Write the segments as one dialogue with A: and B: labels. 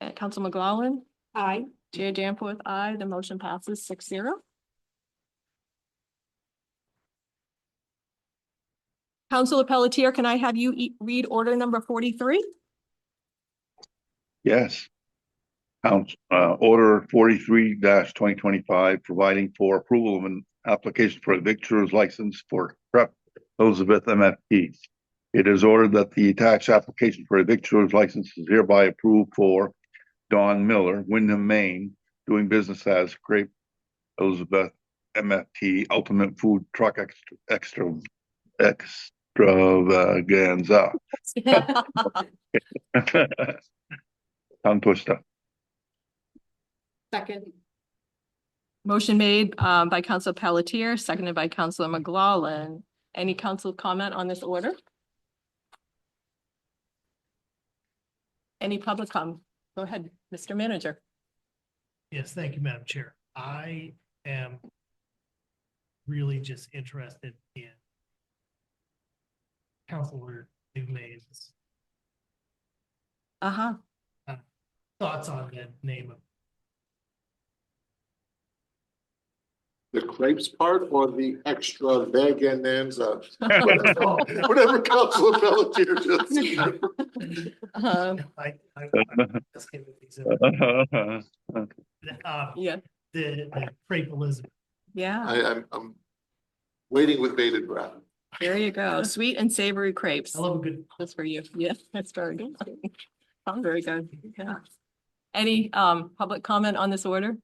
A: Uh, Council McGlaughlin,
B: Aye.
A: Chair Danforth, aye. The motion passes six zero. Councilor Pelletier, can I have you e- read order number forty-three?
C: Yes. Council, uh, order forty-three twenty twenty-five, providing for approval of an application for a victor's license for prep Elizabeth MFP. It is ordered that the attached application for a victor's license is hereby approved for Don Miller, Wyndham, Maine, doing business as Grape Elizabeth MFT Ultimate Food Truck Extra, Extra, Extravaganza. Tongue twister.
B: Second.
A: Motion made um, by Council Pelletier, seconded by Councilor McGlaughlin. Any council comment on this order? Any public comment? Go ahead, Mr. Manager.
D: Yes, thank you, Madam Chair. I am really just interested in Counselor Dumeay's
A: Uh-huh.
D: thoughts on the name of
E: The crepes part or the extra vegananza? Whatever whatever Council Pelletier just said.
A: Um,
D: I, I, let's get with these. Uh,
A: Yeah,
D: the, the crepe Elizabeth.
A: yeah,
D: Uh,
E: I, I'm, I'm waiting with bated breath.
A: there you go. Sweet and savory crepes.
D: I love a good,
A: That's for you. Yeah, that's very good. Sounds very good. Yeah. Any um public comment on this order?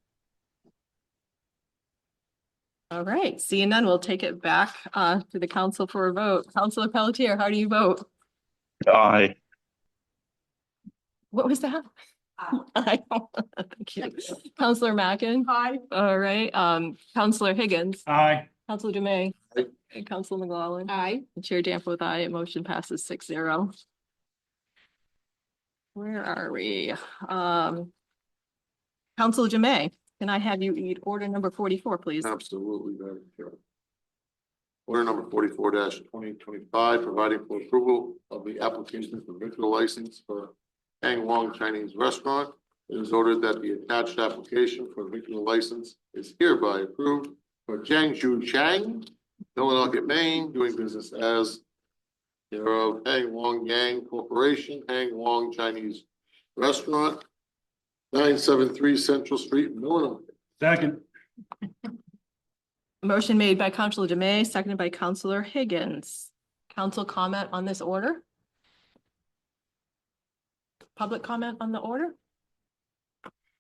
A: All right, seeing none, we'll take it back uh to the council for a vote. Councilor Pelletier, how do you vote?
C: Aye.
A: What was that? I don't- Thank you. Councilor Mackin.
B: Aye.
A: All right, um Councilor Higgins,
D: aye,
A: Councilor Dumeay,
E: Aye.
A: and Council McGowan.
B: Aye.
A: And Chair Danforth, aye. Motion passes six zero. Where are we? Um. Council Jamay, can I have you read order number forty-four, please?
E: Oh. Absolutely, Madam Chair. Order number forty-four twenty twenty-five, providing for approval of the application for virtual license for Hang Wong Chinese Restaurant. It is ordered that the attached application for virtual license is hereby approved for Jiang Zhu Chang, Millinocket, Maine, doing business as thereof Hang Wong Yang Corporation, Hang Wong Chinese Restaurant, nine seven three Central Street, Millinocket.
D: second.
A: Motion made by Councilor Jamay, seconded by Councilor Higgins. Council comment on this order? Public comment on the order?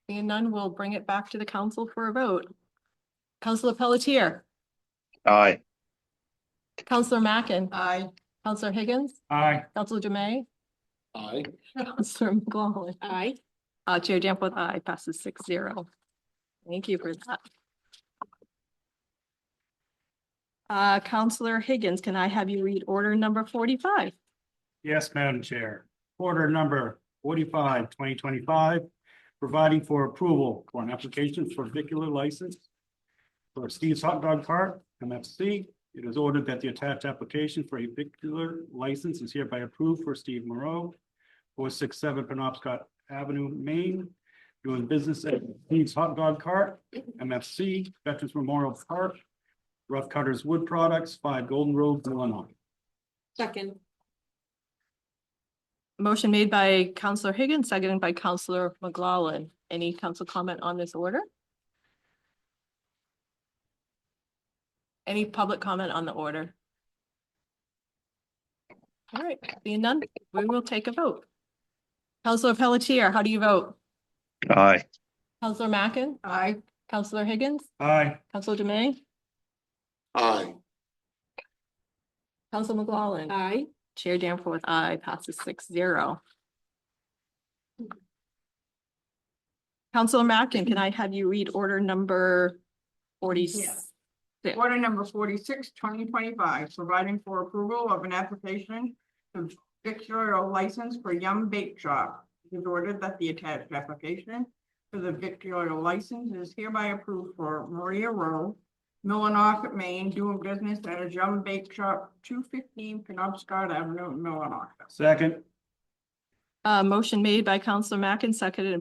A: Seeing none, we'll bring it back to the council for a vote. Councilor Pelletier,
C: Aye.
A: Councilor Mackin,
B: Aye.
A: Councilor Higgins,
D: Aye.
A: Councilor Jamay,
E: Aye.
A: Counselor McGowan.
B: Aye.
A: Uh, Chair Danforth, aye, passes six zero. Thank you for that. Uh, Counselor Higgins, can I have you read order number forty-five?
F: Yes, Madam Chair. Order number 45, 2025, providing for approval for an application for vehicular license for Steve's Hot Dog Cart, MFC. It is ordered that the attached application for a vehicular license is hereby approved for Steve Moreau, four six seven Penobscot Avenue, Maine, doing business at Steve's Hot Dog Cart, MFC, Veterans Memorial Park, Rough Cutters Wood Products, Five Golden Road, Illinois.
B: Second.
A: Motion made by Counselor Higgins, seconded by Counselor McGlaughlin. Any council comment on this order? Any public comment on the order? All right, being none, we will take a vote. Counselor Pelletier, how do you vote?
C: Aye.
A: Counselor Mackin,
B: Aye.
A: Counselor Higgins,
F: Aye.
A: Counselor Dumeay,
E: Aye.
A: Counselor McGlaughlin.
B: Aye.
A: Chair Danforth, aye, passes six zero. Counselor Mackin, can I have you read order number forty?
G: Yes. Order number 46, 2025, providing for approval of an application to victorial license for Yum Bake Shop. It is ordered that the attached application for the victorial license is hereby approved for Maria Rowe, Millinock, Maine, doing business as Yum Bake Shop, two fifteen Penobscot Avenue, Millinock.
F: Second.
A: Uh, motion made by Counselor Mackin, seconded